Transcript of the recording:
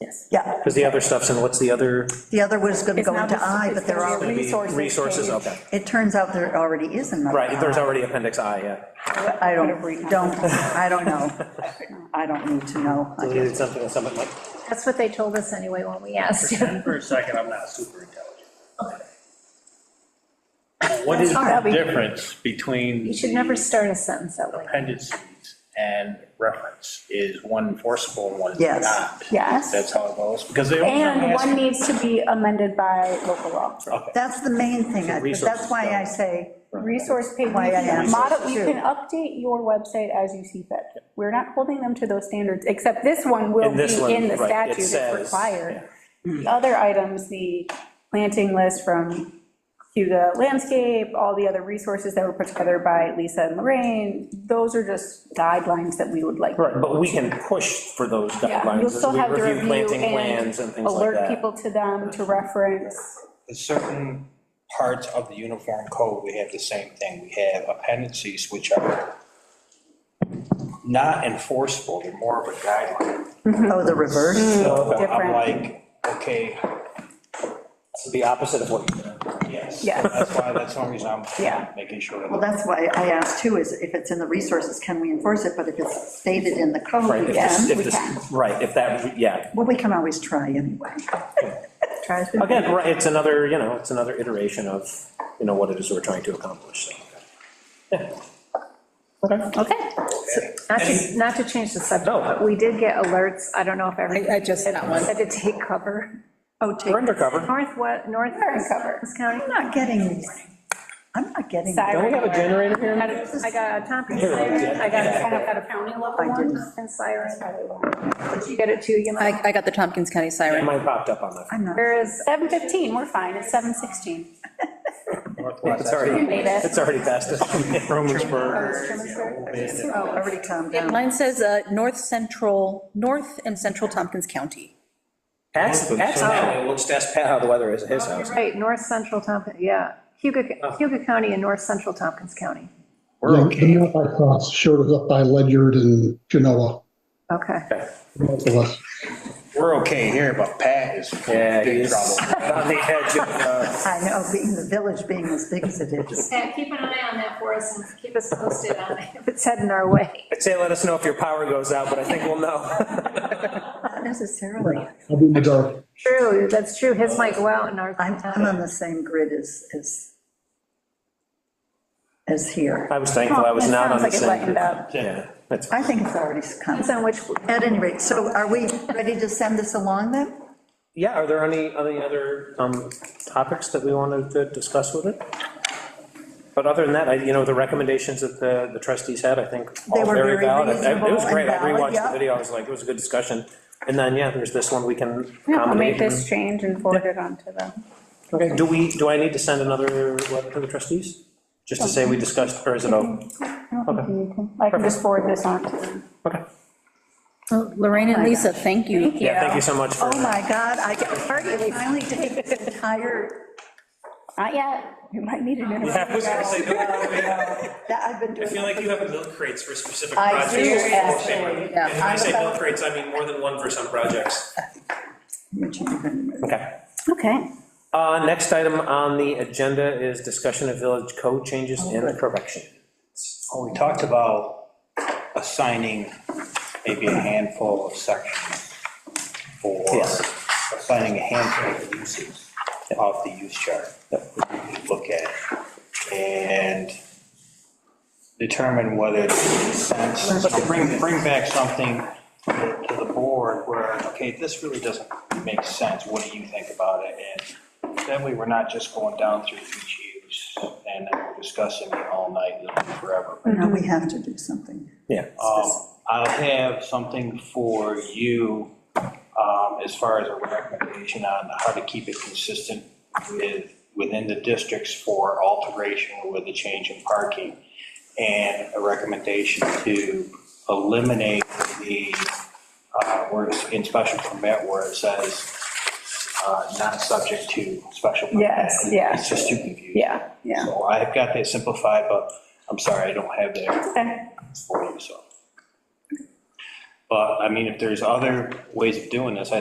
Yes. Yeah, Because the other stuff's in, what's the other? the other was gonna It's go not into a- I, it's but there gonna be are, a- Resources Resources, page. okay. it turns out there already is another. Right, there's I. already appendix I, yeah. I don't, don't, I don't know. I don't need to know. I guess. Deleted something that someone might- That's what they told us anyway when we asked. For a second, I'm not super intelligent. What That's is hard. the difference between? You should never start a sentence that way. Appendices and reference is one enforceable and one is Yes. not. Yes. That's how it goes, because they. always have to And ask- one needs to be amended by local law. That's the main thing, I- but that's why I say, Resource page, you Why I can asked model, you too. can update your website as you see fit. Wewe're not holding them to those standards, except this one will In be this one, in the right, it statute, says, it's required. The other items, the planting list from Huga Landscape, all the other resources that were put together by Lisa and Lorraine, those are just guidelines that we would like. Right, but we can push for those Yeah, guidelines You'll as still we have to review review planting plans and and things like alert that. people to them, to reference. There's certain parts of the uniform code, we have the same thing. We have appendices which are not enforceable, they're more of a guideline. oh, the reverse, So I'm Hmm, Different. like, okay, It's The opposite of what you did. yes. Yes. That's why, that's one reason Yeah. I'm making sure. well, that's why I asked too, is if it's in the resources, can we enforce it, but if it's stated in the Right, code, if we can. this- if we this- can. Right, if that, yeah. well, we can always try anyway. Try as we can. Again, right, it's another, you know, it's another iteration of, you know, what it is we're trying to accomplish, so. yeah. Okay. Okay. Not to, not to change the subject, No. but we did get alerts, I don't know if everyone. I- I just got one. Said to take cover. Oh, take, We're undercover. North, what, north Sussex County? I'm not getting these, I'm not getting, these. Don't we have a generator here? I got a- I got a Tompkins Here, siren, yeah. I got a, I got a county I level didn't. one and siren. Did you get it too, you I, I got the Tompkins County siren. Mine popped up on that. I'm not, There is, 7:15, we're fine, it's 7:16. It's You already, made it. it's already passed. oh, already calmed down. Mine says, uh, North Central, North and Central Tompkins County. Ask, ask Pat, let's ask Pat how the weather is at his house. right, north central Tompkins, yeah, Hugo, Hugo County and north central Tompkins County. We're Yeah, okay. The North I Cross showed us up by Ledyard and Genoa, Okay. both of us. We're okay here, but Pat is Yeah, in big he's- trouble. On the edge of, uh, I know, being the village being as big as it is. Pat, keep an eye on that for us and keep us posted on it if it's heading our way. I'd say let us know if your power goes out, but I think we'll know. Not necessarily. I'll be in the dark. True, that's true, his might go out in our. I'm, I'm on the same grid as, as, as here. I was thankful I was not on the Sounds like it same. lightened up. Yeah, that's, I think it's already come. Depends on which, At any rate, so are we ready to send this along then? yeah, are there any, any other um, topics that we wanted to discuss with it? But other than that, I, you know, the recommendations that the the trustees had, I think, They all were very very valid. It- It was reasonable great, I and valid, rewatched the yeah. video, I was like, it was a good discussion. And then, yeah, there's this one we can I'll make accommodate. this change and forward it on to them. Okay, do we, do I need to send another letter to the trustees? Just to say we discussed, or is it open? I can just forward this on to them. Okay. Oh, Lorraine and Lisa, thank you. Yeah, thank you so much for. Oh my God, I can hardly finally take this entire, Not yet, you might need it in I was gonna say, that I've been I feel doing. like you have milk crates for specific I projects. do, actually, And when yeah. I say milk crates, I mean more than one for some projects. Okay. Okay. Uh, Next item on the agenda is discussion of village code changes and correction. Well, Oh, we talked about assigning maybe a handful of sections for, Yes. assigning a handful of uses off the use chart that we look at and determine whether it makes sense, So bring, bring back something to to the board where, okay, this really doesn't make sense, what do you think about it? And that way, we're not just going down through each use and then we're discussing it all night and forever. No, we have to do something. Yeah. Um, I'll have something for you um, as far as a recommendation on how to keep it consistent with, within the districts for alteration with a change in parking, and a recommendation to eliminate the, uh, where it's in special permit where it says uh, not subject to special permit. Yes, yeah. It's just too confusing. Yeah, yeah. So I've got that simplified, but I'm sorry, I don't have that for you, so. But, I mean, if there's other ways of doing this, I think